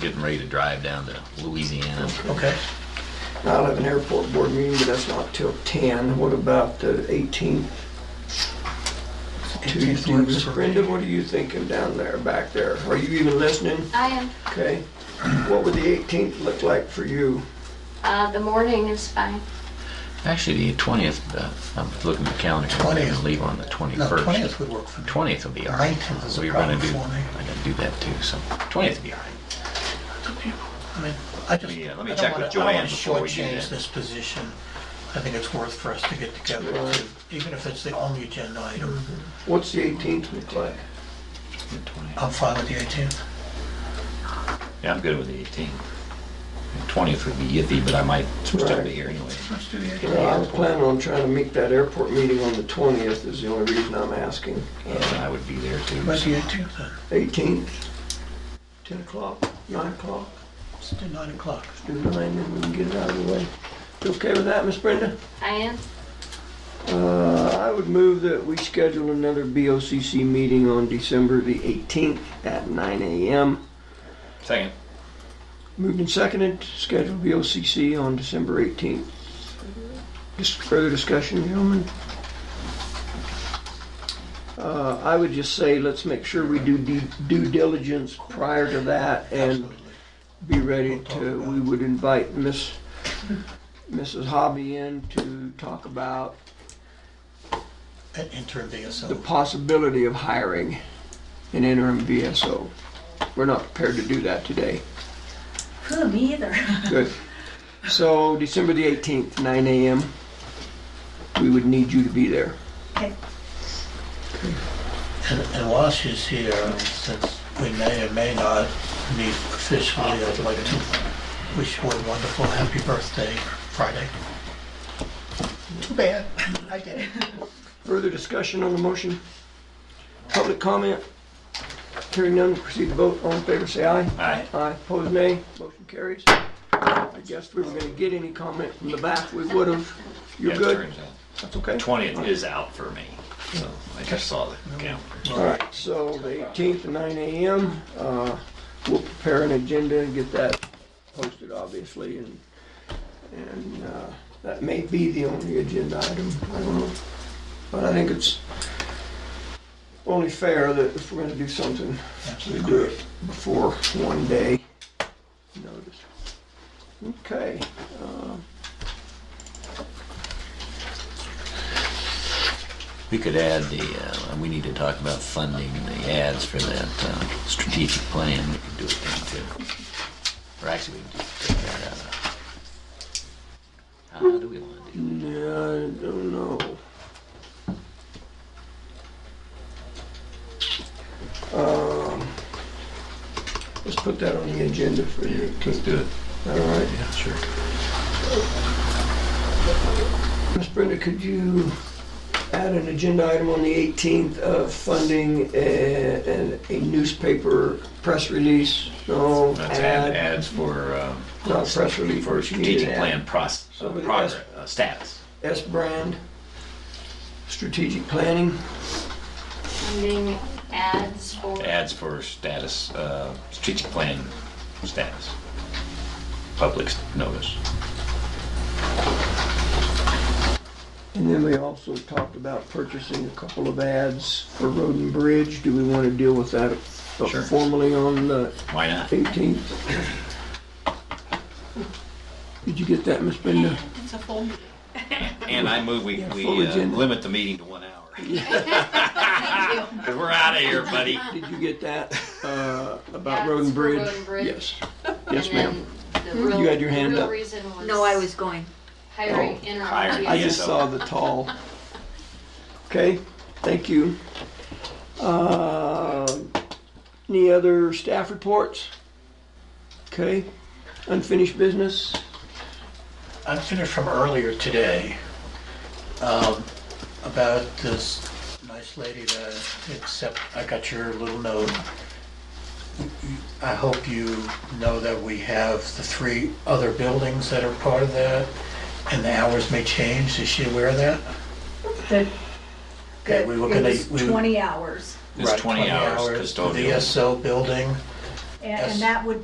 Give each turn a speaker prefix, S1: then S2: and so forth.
S1: getting ready to drive down to Louisiana.
S2: Okay.
S3: I'll have an airport board meeting, but that's not till ten. What about the eighteenth? Tuesday,
S2: works for me.
S3: Brenda, what are you thinking down there, back there? Are you even listening?
S4: I am.
S3: Okay. What would the eighteenth look like for you?
S4: Uh, the morning is fine.
S1: Actually, the 20th, uh, I'm looking at the calendar. I'm going
S2: 20th.
S1: to leave on the 21st.
S2: No, 20th would work for me.
S1: 20th will be all right.
S2: 19th is a
S1: We were gonna
S2: problem
S1: do-
S2: for me.
S1: I gotta do that too, so 20th will be all right.
S2: I mean, I just.
S1: Yeah, let me
S2: I don't
S1: check
S2: wanna-
S1: with Joanne
S2: I don't wanna
S1: before we do
S2: shortchange
S1: that.
S2: this position. I think it's worth for us to get together, even if it's the only agenda item.
S3: What's the eighteenth look like?
S1: The 20th.
S2: I'm fine with the 18th.
S1: Yeah, I'm good with the 18th. The 20th would be iffy, but I might still
S3: Right.
S1: be here anyway.
S2: Let's do the
S3: Well, I was planning on trying to make that airport meeting on the twentieth is the only reason I'm asking.
S1: And I would be there too.
S2: What's
S1: so-
S2: the 18th then?
S3: Eighteenth, ten o'clock, nine o'clock,
S2: Let's do 9 o'clock.
S3: do nine, and we can get it out of the way. You okay with that, Miss Brenda?
S4: I am.
S3: Uh, I would move that we schedule another BOCC meeting on December the 18th at 9 a.m.
S1: Second.
S3: Moved and seconded, schedule BOCC on December 18th. Just further discussion, gentlemen? Uh, I would just say, let's make sure we do de- due diligence prior to that and
S2: Absolutely.
S3: be ready to, we would invite Miss, Mrs. Hobby in to talk about
S2: An interim
S3: the
S2: BSO.
S3: possibility of hiring an interim VSO. We're not prepared to do that today.
S5: Huh, me either.
S3: Good. So December the 18th, 9 a.m., we would need you to be there.
S5: Okay.
S2: And and while she's here, since we may or may not meet officially, I'd like to wish her a wonderful happy birthday Friday. Too bad. I did.
S3: Further discussion on the motion? Public comment? Hearing none, proceed to vote. All in favor, say aye.
S1: Aye.
S3: Aye, opposed nay, motion carries. I guess if we were gonna get any comment from the back, we would've. You're
S1: Yeah,
S3: good?
S1: turns out.
S3: That's okay?
S1: 20th is out for me, so I just saw the calendar.
S3: All right, so the 18th at 9 a.m., uh, we'll prepare an agenda and get that posted, obviously, and, and uh, that may be the only agenda item, I don't know. But I think it's only fair that if we're gonna do something, we do it before one day notice. Okay.
S1: We could add the, uh, we need to talk about funding the ads for that uh, strategic plan. We could do it then too. Or actually, we can just take that out. of- How do we want to do
S3: No, I don't know. Um, let's put that on the agenda for the eighteenth.
S1: do it.
S3: All right.
S1: Yeah, sure.
S3: Miss Brenda, could you add an agenda item on the eighteenth of funding a, an- a newspaper press release? No,
S1: Let's add
S3: ad,
S1: ads for, um,
S3: not press release.
S1: for
S3: you need an
S1: strategic
S3: ad.
S1: plan process,
S3: Somebody
S1: progress,
S3: asked-
S1: uh, status.
S3: S brand, strategic planning.
S4: Sending ads for.
S1: Ads for status, uh, strategic plan status. Public notice.
S3: And then we also talked about purchasing a couple of ads for Road and Bridge. Do we want to deal with that
S1: Sure.
S3: formally on the
S1: Why not?
S3: 18th? Did you get that, Miss Brenda?
S5: It's a full meeting.
S1: And I move we, we
S3: full
S1: uh,
S3: agenda.
S1: limit the meeting to one hour. Because we're out of here, buddy.
S3: Did you get that uh, about
S4: Ads
S3: Road and
S4: for Road
S3: Bridge?
S4: and Bridge.
S3: Yes. Yes,
S4: and then
S3: ma'am.
S4: the real,
S3: You had your hand
S4: real
S3: up.
S4: reason was.
S5: No, I was going.
S4: Hiring
S3: Oh,
S4: interim.
S1: hiring,
S3: I
S4: VSO.
S3: just
S1: so-
S3: saw the tall. Okay, thank you. Uh, Any other staff reports? Okay, unfinished business?
S2: I'm finished from earlier today um, about this nice lady that except I got your little note. I hope you know that we have the three other buildings that are part of that, and the hours may change. Is she aware of that?
S5: The,
S2: Okay, we were gonna-
S5: it was
S2: we were-
S5: twenty hours,
S1: It's
S2: Right,
S1: 20 hours
S2: For the
S1: custodial.
S2: SO building.
S5: and,
S2: Yes.
S5: and that would